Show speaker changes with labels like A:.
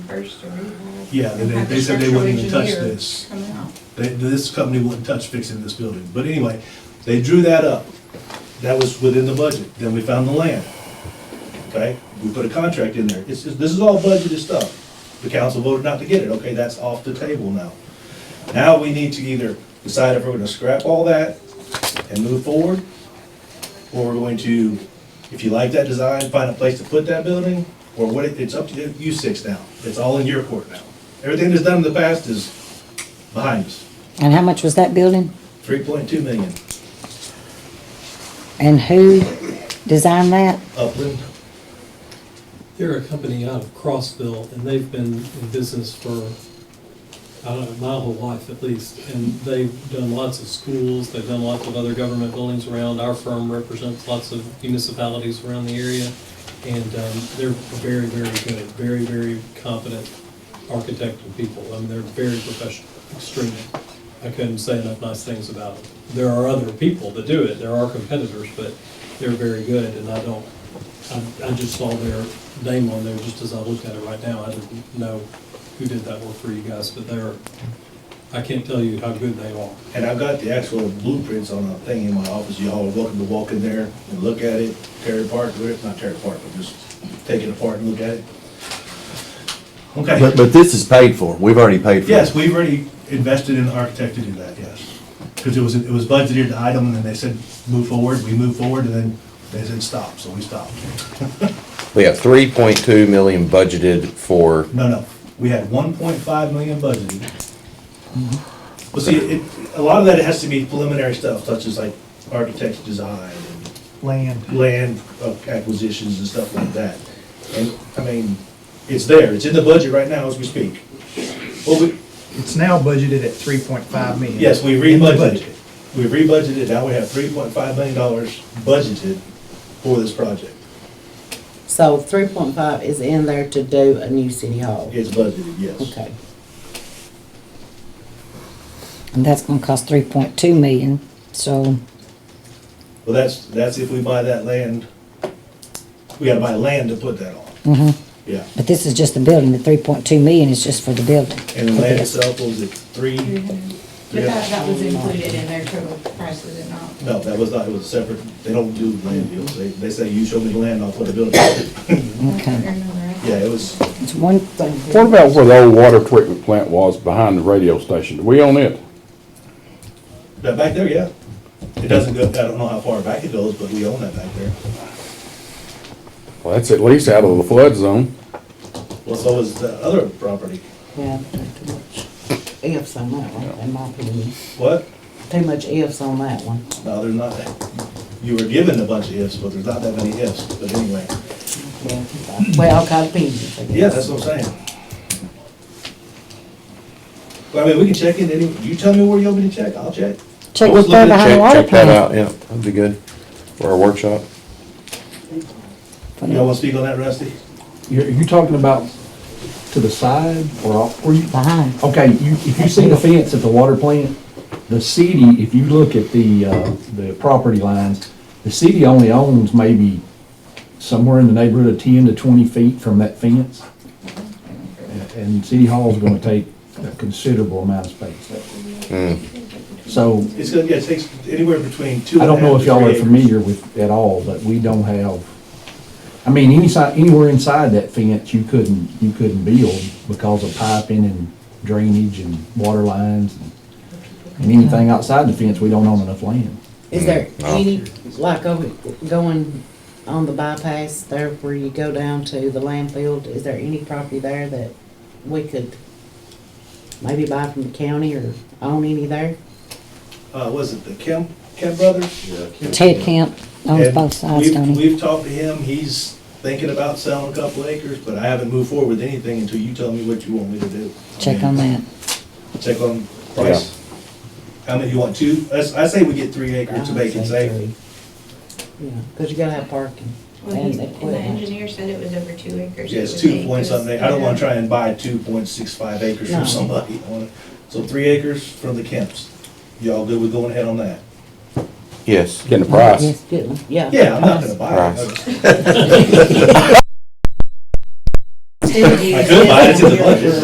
A: first to read. and
B: Yeah, they,
A: have the
B: they said they wouldn't even
A: structural
B: touch
A: engineer
B: this.
A: Come out.
B: They, this company wouldn't touch fixing this building. But anyway, they drew that up. That was within the budget. Then we found the land. Okay, we put a contract in there. It's, this is all budgeted stuff. The council voted not to get it. Okay, that's off the table now. Now we need to either decide if we're gonna scrap all that and move forward, or we're going to, if you like that design, find a place to put that building, or what, it- it's up to you- you six now. It's all in your court now. Everything that's done in the past is behind us.
C: And how much was that building?
B: Three point two million,
C: And who designed that?
B: Upland.
D: They're a company out of Crossville, and they've been in business for, I don't know, my whole life at least. And they've done lots of schools, they've done lots of other government buildings around. Our firm represents lots of municipalities around the area. And um, they're very, very good, very, very competent architect and people. I mean, they're very professional, extremely. I couldn't say enough nice things about them. There are other people that do it, there are competitors, but they're very good, and I don't, I, I just saw their name on there just as I looked at it right now. I didn't know who did that work for you guys, but they're, I can't tell you how good they are.
B: And I've got the actual blueprints on a thing in my office. Y'all are welcome to walk in there and look at it, tear it apart, or if not tear it apart, but just take it apart and look at it.
E: But,
B: Okay,
E: but this is paid for, we've already paid for it.
B: yes, we've already invested in an architect to do that, yes. Because it was, it was budgeted item, and then they said, move forward, we moved forward, and then they said, stop, so we stopped.
F: We have three point two million budgeted for,
B: No, no, we had one point five million budgeted. Well, see, it, a lot of that has to be preliminary stuff, such as like architect's design
G: land.
B: and land acquisitions and stuff like that. And, I mean, it's there, it's in the budget right now as we speak. Well, we,
G: It's now budgeted at three point five million.
B: yes, we
G: in the
B: rebudgeted.
G: budget.
B: We rebudgeted, now we have three point five million dollars budgeted for this project.
H: So three point five is in there to do a new city hall?
B: It's budgeted, yes.
H: Okay.
C: And that's gonna cost three point two million, so,
B: Well, that's, that's if we buy that land, we gotta buy land to put that on. Yeah,
C: but this is just the building, the three point two million is just for the building.
B: and the land itself was at
A: Three
B: three,
A: hundred. Mm-hmm. But that, that was included in their total price, was it not?
B: no, that was not, it was separate, they don't do land deals, they, they say, you show me the land, I'll put a building. Yeah,
C: Okay.
B: it was,
C: It's one thing.
I: What about where the old water treatment plant was behind the radio station? Do we own it?
B: that back there, yeah. It doesn't go, I don't know how far back it goes, but we own that back there.
I: Well, that's at least out of the flood zone.
B: Well, so was the other property.
H: Yeah, too much ifs on that one, in my opinion.
B: What?
H: Too much ifs on that one.
B: No, there's not, you were given a bunch of ifs, but there's not that many ifs, but anyway.
H: Yeah. Well, kind of opinions, I guess.
B: Yeah, that's what I'm saying. Well, I mean, we can check in any, you tell me where you want me to check, I'll check.
C: Check
F: I was
C: what's there
F: looking to
C: behind the
F: check-
C: water
F: check that
C: plant.
F: out, yeah, that'd be good, for our workshop.
B: Y'all wanna speak on that, Rusty?
J: You're, you talking about to the side or off, where you,
C: Behind.
J: okay, you, if you see the fence at the water plant, the city, if you look at the, uh, the property lines, the city only owns maybe somewhere in the neighborhood of ten to twenty feet from that fence. And- And City Hall's gonna take a considerable amount of space.
E: Hmm.
J: So,
B: It's gonna, yeah, it takes anywhere between two
J: I
B: and a half
J: don't know
B: to
J: if y'all
B: three
J: are
B: acres.
J: familiar with at all, but we don't have, I mean, any si- anywhere inside that fence, you couldn't, you couldn't build because of piping and drainage and water lines and and anything outside the fence, we don't own enough land.
H: Is there
F: No.
B: Oh.
H: any, like, over, going on the bypass there where you go down to the landfill, is there any property there that we could maybe buy from the county or own any there?
B: Uh, was it the Kemp, Kemp brothers?
C: Ted Camp owns
B: And
C: both sides,
B: we've-
C: don't he?
B: We've talked to him, he's thinking about selling a couple acres, but I haven't moved forward with anything until you tell me what you want me to do.
C: Check on that.
B: Check on price. How many, you want two? I, s- I say we get three acres to make it safe.
H: Yeah, cause you gotta have parking
A: Well,
H: and
A: he's- and the
H: equipment.
A: engineer said it was over two acres.
B: Yeah,
A: It
B: it's
A: was
B: two
A: eight,
B: point
A: it was-
B: something, I don't wanna
A: yeah.
B: try and buy two point six five acres
H: No.
B: from somebody. I wanna- So three acres from the Kemps. Y'all good with going ahead on that?
F: Yes.
I: Getting the price.
H: Yes, good one. yeah.
B: Yeah, I'm not gonna buy it.
F: Price.
A: Steve, you
B: I feel bad, it's in the budget.